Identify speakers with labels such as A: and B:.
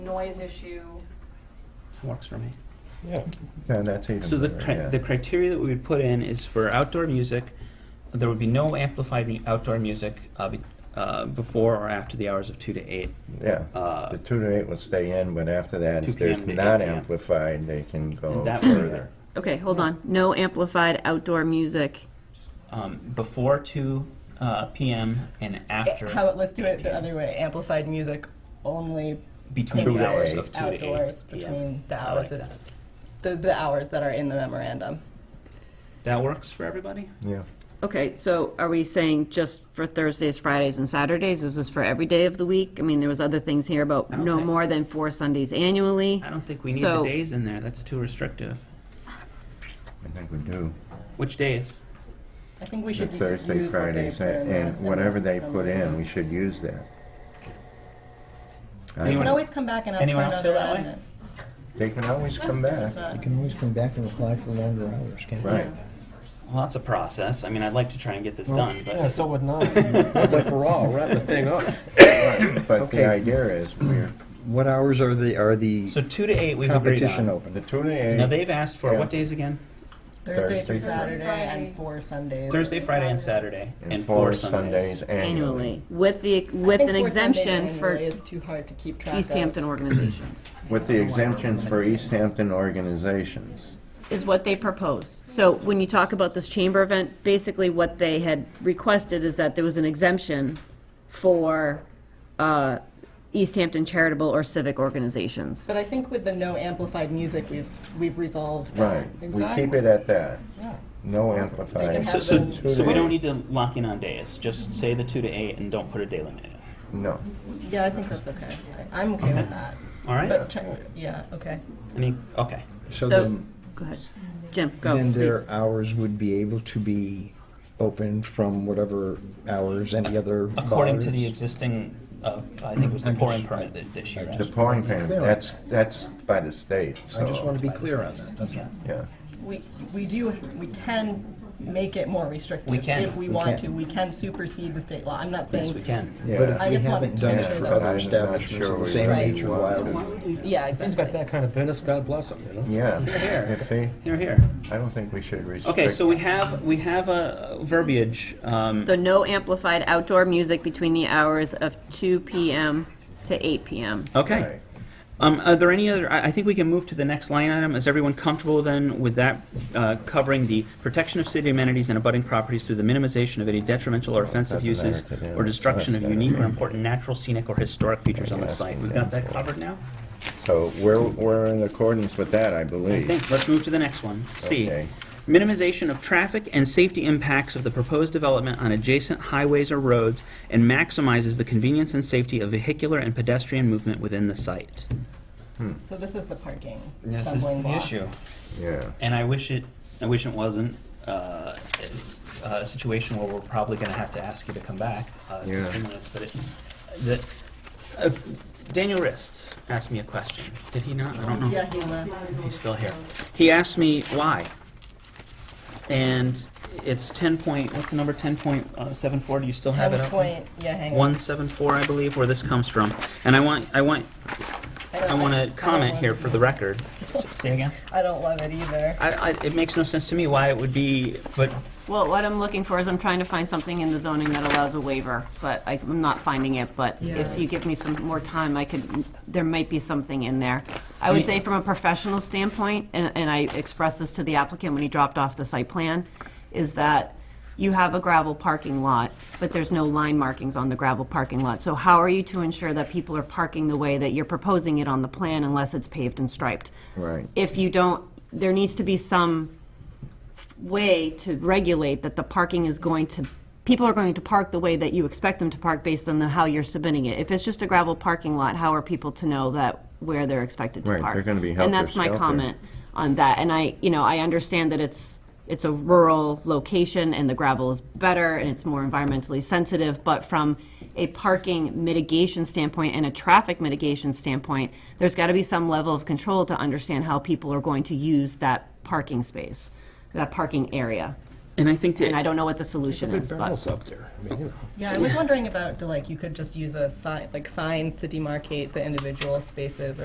A: noise issue.
B: Works for me.
C: Yeah.
D: And that's even
B: So the,
D: better,
B: cri-
D: yeah.
B: the criteria that we would put in is for outdoor music, there would be no amplified mu- outdoor music uh, be- uh, before or after the hours of two to eight.
D: Yeah,
B: uh,
D: the two to eight will stay in, but after that,
B: 2
D: if there's
B: p.m. to 8
D: not
B: p.m.
D: amplified, they can go
B: And that would be
D: further.
E: Okay, hold on. No amplified outdoor music.
B: Um, before two uh, p.m. and after
F: How, about- let's do it the other way. Amplified music only
B: between
D: Two
B: the
D: to
B: hours
D: eight.
B: of two
F: outdoors
B: to eight. p.m.
F: between the
B: I
F: hours
B: like
F: of
B: that.
F: the, the hours that are in the memorandum.
B: That works for everybody.
D: Yeah,
E: Okay, so are we saying just for Thursdays, Fridays, and Saturdays? Is this for every day of the week? I mean, there was other things here about
B: I don't
E: no
B: think-
E: more than four Sundays annually.
B: I don't think we need
E: So-
B: the days in there. That's too restrictive.
D: I think we do.
B: Which days?
F: I think we
D: The
F: should u-
D: Thursday,
F: use what they
D: Fridays,
F: put in
D: and
F: the-
D: and
F: in the
D: whatever they
F: memorandum.
D: put in, we should use that.
B: Anyone-
D: I
F: You can
D: don't-
F: always come back and ask
B: Anyone
F: for
B: else
F: another
B: feel that way?
F: amendment.
D: They can always come back.
F: It's not-
C: You can always come back and apply for longer hours, can't you?
D: Right.
B: Well, that's a process. I mean, I'd like to try and get this done, but
C: Yeah, so would not. But for all, wrap the thing up.
D: Right, But
C: Okay.
D: the idea is, we're,
C: What hours are the, are the
B: so two to eight we've agreed
C: competition
B: on.
D: the
C: open?
D: two to
B: Now
D: eight,
B: they've asked for
D: Yeah.
B: what days again?
F: Thursday through
D: Thursday,
F: Saturday
A: Friday.
F: and four Sundays.
B: Thursday, Friday, and Saturday,
D: and four Sundays
E: Annually,
D: annually.
E: with the,
F: I
E: with
F: think
E: an
F: four Sundays
E: exemption for
F: annually is too hard to keep track
E: East
F: of.
E: Hampton organizations,
D: With the exemptions for East Hampton organizations.
E: is what they proposed. So when you talk about this chamber event, basically what they had requested is that there was an exemption for uh, East Hampton charitable or civic organizations.
F: But I think with the no amplified music, we've we've resolved that.
D: Right, we keep it at that. No amplified.
B: So,
F: So-
B: so,
D: Two
B: so
D: to
B: we
D: eight.
B: don't need to lock in on days. Just say the two to eight and don't put a day limit in it.
D: No.
F: Yeah, I think that's okay. I, I'm okay with that.
B: All right?
F: But check, yeah, okay.
B: I mean, okay.
E: So,
C: So then,
E: go ahead. Jim, go,
C: then
E: please.
C: their hours would be able to be open from whatever hours, any other bars?
B: According to the existing, uh, I think it was the
C: I'm
B: pouring
C: just-
B: permit that this year.
D: The pouring payment, that's, that's by the state, so.
C: I just want to be clear on that, that's all.
D: Yeah,
F: We, we do, we can make it more restrictive.
B: We can.
F: If we
C: We
F: want
C: can.
F: to, we can supersede the state law. I'm not
B: Yes, we
F: saying,
B: can.
C: But
D: yeah.
C: if
F: I
C: we
F: just wanted
C: haven't
F: to
C: done
F: make
C: it
F: sure
C: for
F: that- But
D: I'm
C: other
D: not
C: establishments
D: sure
C: of the
D: we
C: same
D: really
C: nature, why
D: want
C: would
D: to.
F: yeah,
C: He's got
F: exactly.
C: that kind of business, God bless him, you know?
D: Yeah, if they,
B: Here, here.
D: I don't think we should restrict.
B: Okay, so we have, we have a verbiage. um,
E: So no amplified outdoor music between the hours of 2 PM to 8 PM.
B: Okay.
D: Right.
B: Um, Are there any other, I I think we can move to the next line item. Is everyone comfortable then with that uh, covering the protection of city amenities and abutting properties through the minimization of any detrimental or offensive
D: doesn't
B: uses
D: matter to them.
B: or destruction of
D: That's
B: unique or
D: better.
B: important natural, scenic, or historic features on the
D: Yeah,
B: site?
D: that's
B: We've got that
D: cool.
B: covered now?
D: So we're, we're in accordance with that, I
B: I
D: believe.
B: think, let's move to the next one. C.
D: Okay.
B: Minimization of traffic and safety impacts of the proposed development on adjacent highways or roads and maximizes the convenience and safety of vehicular and pedestrian movement within the site.
F: So this is the parking
B: This is
F: stumbling
B: the
F: block.
B: issue.
D: Yeah,
B: and I wish it, I wish it wasn't uh, a situation where we're probably going to have to ask you to come back. Uh,
D: Yeah.
B: Just a few minutes, but it, the, uh, Daniel Rist asked me a question. Did he not? I don't know.
F: Yeah, he left.
B: He's still here. He asked me why, and it's ten point. What's the number? Ten point uh, seven four. Do you still have it
F: Ten
B: up?
F: point, yeah, hang on.
B: 174, I believe, where this comes from. And I want, I want,
F: don't-
B: I want
F: I
B: to
F: don't
B: comment
F: love
B: here
F: it.
B: for the record. Say again.
F: I don't love it either.
B: I, I, it makes no sense to me why it would be, but
E: Well, what I'm looking for is I'm trying to find something in the zoning that allows a waiver, but I- I'm not finding it. But
F: Yeah.
E: if you give me some more time, I could, there might be something in there. I would
B: mean-
E: say from a professional standpoint, and, and I expressed this to the applicant when he dropped off the site plan, is that you have a gravel parking lot, but there's no line markings on the gravel parking lot. So how are you to ensure that people are parking the way that you're proposing it on the plan unless it's paved and striped?
D: right.
E: if you don't, there needs to be some way to regulate that the parking is going to, people are going to park the way that you expect them to park based on the, how you're submitting it. If it's just a gravel parking lot, how are people to know that, where they're expected to
D: Right,
E: park?
D: they're gonna be
E: And that's my
D: helter-skelter.
E: comment on that. And I, you know, I understand that it's, it's a rural location and the gravel is better and it's more environmentally sensitive, but from a parking mitigation standpoint and a traffic mitigation standpoint, there's got to be some level of control to understand how people are going to use that parking space, that parking area.
B: And I think
E: And I
B: that,
E: don't know what the solution is, but
C: barrels up there. I mean, you know.
F: Yeah, I was wondering about, like, you could just use a sign, like signs to demarcate the individual spaces